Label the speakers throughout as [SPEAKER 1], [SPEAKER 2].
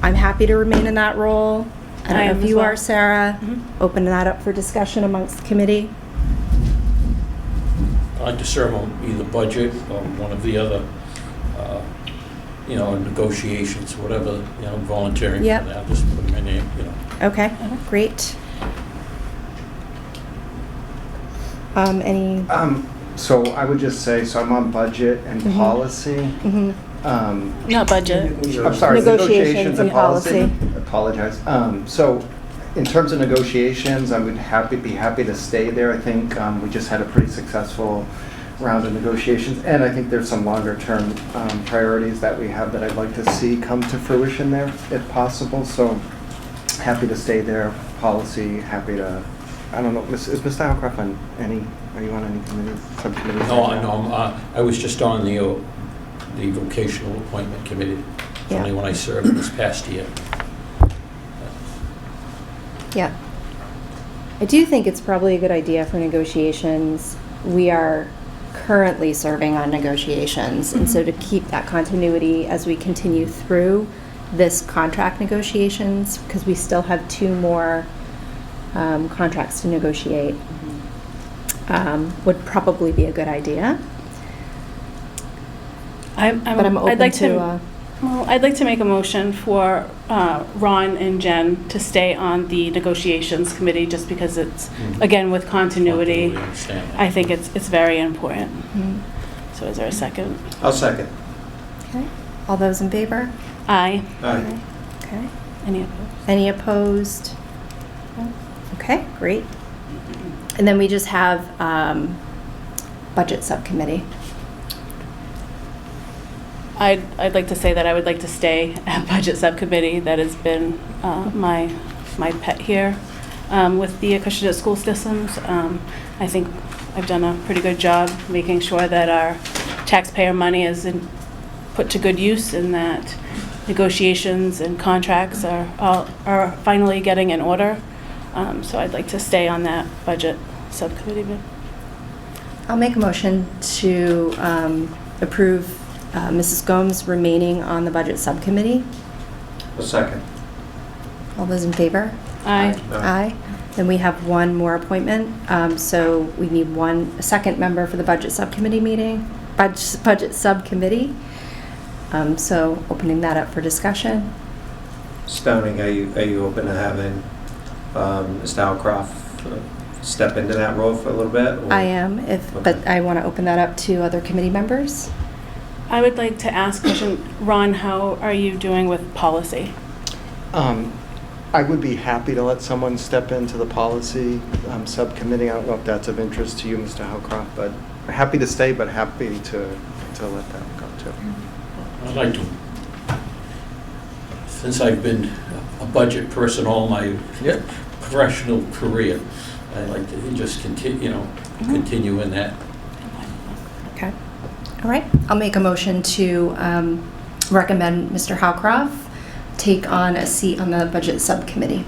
[SPEAKER 1] I'm happy to remain in that role. I
[SPEAKER 2] I
[SPEAKER 1] don't
[SPEAKER 2] am
[SPEAKER 1] know if
[SPEAKER 2] as
[SPEAKER 1] you
[SPEAKER 2] well.
[SPEAKER 1] are, Sarah.
[SPEAKER 2] Mhm.
[SPEAKER 1] Open that up for discussion amongst the committee.
[SPEAKER 3] I would to serve on either budget or one of the other, uh, you know, negotiations, whatever, you know, volunteering for
[SPEAKER 1] Yep.
[SPEAKER 3] that, just put my name, you know.
[SPEAKER 1] Okay, great. Um, any,
[SPEAKER 4] Um, so I would just say, so I'm on budget and
[SPEAKER 1] Mhm.
[SPEAKER 4] policy.
[SPEAKER 1] mhm.
[SPEAKER 4] Um,
[SPEAKER 2] Not budget.
[SPEAKER 4] I'm sorry,
[SPEAKER 1] Negotiations
[SPEAKER 4] negotiations
[SPEAKER 1] and
[SPEAKER 4] and policy.
[SPEAKER 1] policy.
[SPEAKER 4] Apologize. Um, so in terms of negotiations, I would happy, be happy to stay there. I think, um, we just had a pretty successful round of negotiations. And I think there's some longer term, um, priorities that we have that I'd like to see come to fruition there if possible. So happy to stay there. Policy, happy to, I don't know, is is Mr. Howcroft on any, are you on any committee, subcommittees?
[SPEAKER 3] No,
[SPEAKER 4] right
[SPEAKER 3] I
[SPEAKER 4] now?
[SPEAKER 3] know, I'm, uh, I was just on the, uh, the vocational appointment committee, It's
[SPEAKER 1] Yeah.
[SPEAKER 3] only when I served this past year.
[SPEAKER 1] Yeah. I do think it's probably a good idea for negotiations. We are currently serving on negotiations, and
[SPEAKER 2] Mm-hmm.
[SPEAKER 1] so to keep that continuity as we continue through this contract negotiations, because we still have two more um, contracts to negotiate,
[SPEAKER 2] Mm-hmm.
[SPEAKER 1] um, would probably be a good idea.
[SPEAKER 2] I'm, I'm,
[SPEAKER 1] But I'm
[SPEAKER 2] I'd
[SPEAKER 1] open
[SPEAKER 2] like
[SPEAKER 1] to,
[SPEAKER 2] to,
[SPEAKER 1] uh,
[SPEAKER 2] well, I'd like to make a motion for uh, Ron and Jen to stay on the negotiations committee, just because it's,
[SPEAKER 3] Mhm.
[SPEAKER 2] again, with continuity.
[SPEAKER 3] Continuity, understand that.
[SPEAKER 2] I think it's, it's very important.
[SPEAKER 1] Mm.
[SPEAKER 2] So is there a second?
[SPEAKER 5] I'll second.
[SPEAKER 1] Okay. All those in favor?
[SPEAKER 2] Aye.
[SPEAKER 5] Aye.
[SPEAKER 1] Okay.
[SPEAKER 2] Any opposed?
[SPEAKER 1] Any opposed? Okay, great. And then we just have um, Budget Subcommittee.
[SPEAKER 2] I'd, I'd like to say that I would like to stay at Budget Subcommittee. That has been uh, my, my pet here um, with the Acushnet School Systems. Um, I think I've done a pretty good job making sure that our taxpayer money is in- put to good use and that negotiations and contracts are, all- are finally getting in order. Um, So I'd like to stay on that Budget Subcommittee. but-
[SPEAKER 1] I'll make a motion to um, approve uh, Mrs. Gomes remaining on the Budget Subcommittee.
[SPEAKER 5] I'll second.
[SPEAKER 1] All those in favor?
[SPEAKER 2] Aye.
[SPEAKER 1] Aye. Then we have one more appointment. Um, So we need one, a second member for the Budget Subcommittee meeting, Budget Budget Subcommittee. Um, So opening that up for discussion.
[SPEAKER 5] Stoning, are you, are you open to having um, Mr. Howcroft uh, step into that role for a little bit? or-
[SPEAKER 1] I am, if, but
[SPEAKER 5] Okay.
[SPEAKER 1] I want to open that up to other committee members.
[SPEAKER 2] I would like to ask, question, Ron, how are you doing with policy?
[SPEAKER 4] Um, I would be happy to let someone step into the policy um, subcommittee. I don't know if that's of interest to you, Mr. Howcroft, but happy to stay, but happy to, to let that go too.
[SPEAKER 3] I'd like to, since I've been a budget person all my
[SPEAKER 4] Yeah.
[SPEAKER 3] professional career, I'd like to just continue, you know, continue in that.
[SPEAKER 1] Okay. All right. I'll make a motion to um, recommend Mr. Howcroft take on a seat on the Budget Subcommittee.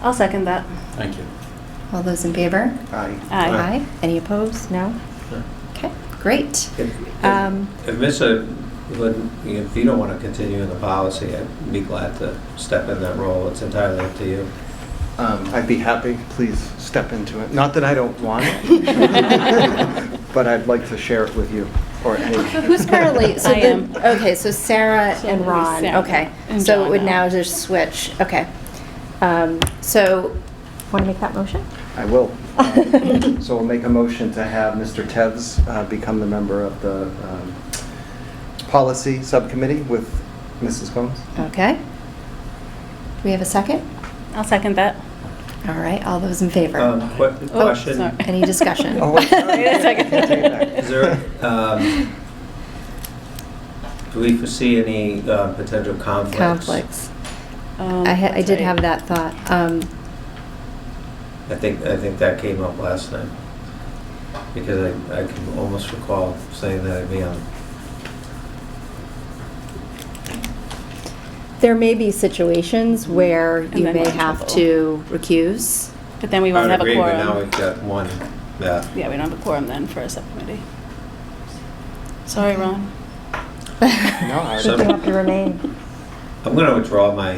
[SPEAKER 2] I'll second that.
[SPEAKER 3] Thank you.
[SPEAKER 1] All those in favor?
[SPEAKER 4] Aye.
[SPEAKER 2] Aye.
[SPEAKER 1] Aye. Any opposed? No?
[SPEAKER 5] No.
[SPEAKER 1] Okay, great.
[SPEAKER 5] If
[SPEAKER 1] Um,
[SPEAKER 5] if- if Mr., Lin- if you don't want to continue in the policy, I'd be glad to step in that role. It's entirely up to you.
[SPEAKER 4] Um, I'd be happy, please step into it. Not that I don't want it, but I'd like to share it with you or anyone.
[SPEAKER 1] Who's currently, so
[SPEAKER 2] I am.
[SPEAKER 1] the, okay, so Sarah
[SPEAKER 2] So
[SPEAKER 1] and
[SPEAKER 2] it'll be
[SPEAKER 1] Ron,
[SPEAKER 2] Sarah
[SPEAKER 1] okay.
[SPEAKER 2] and
[SPEAKER 1] So it
[SPEAKER 2] John
[SPEAKER 1] would now
[SPEAKER 2] now.
[SPEAKER 1] just switch, okay. Um, So, want to make that motion?
[SPEAKER 4] I will. Um, So we'll make a motion to have Mr. Tevz uh, become the member of the um, policy subcommittee with Mrs. Gomes.
[SPEAKER 1] Okay. Do we have a second?
[SPEAKER 2] I'll second that.
[SPEAKER 1] All right, all those in favor?
[SPEAKER 5] Um, que-
[SPEAKER 2] Oh,
[SPEAKER 5] Question,
[SPEAKER 2] sorry.
[SPEAKER 1] Any discussion?
[SPEAKER 4] Oh, wait, sorry.
[SPEAKER 2] Wait a second.
[SPEAKER 4] Take it back.
[SPEAKER 5] is there, um, do we foresee any uh, potential conflicts?
[SPEAKER 1] Conflicts.
[SPEAKER 2] Um,
[SPEAKER 1] I ha- I
[SPEAKER 2] that's
[SPEAKER 1] did
[SPEAKER 2] right.
[SPEAKER 1] have that thought. Um,
[SPEAKER 5] I think, I think that came up last night, because I, I can almost recall saying that I'd be on.
[SPEAKER 1] There may be situations where
[SPEAKER 2] Mm-hmm. And
[SPEAKER 1] you
[SPEAKER 2] then
[SPEAKER 1] may
[SPEAKER 2] we're in
[SPEAKER 1] have
[SPEAKER 2] trouble.
[SPEAKER 1] to recuse.
[SPEAKER 2] But then we
[SPEAKER 5] I
[SPEAKER 2] won't
[SPEAKER 5] would
[SPEAKER 2] have a
[SPEAKER 5] agree, but Now
[SPEAKER 2] quorum.
[SPEAKER 5] we've got one, yeah.
[SPEAKER 2] Yeah, we don't have a quorum then for a subcommittee. Sorry, Ron.
[SPEAKER 4] No, I-
[SPEAKER 1] You have to remain.
[SPEAKER 5] I'm going to withdraw my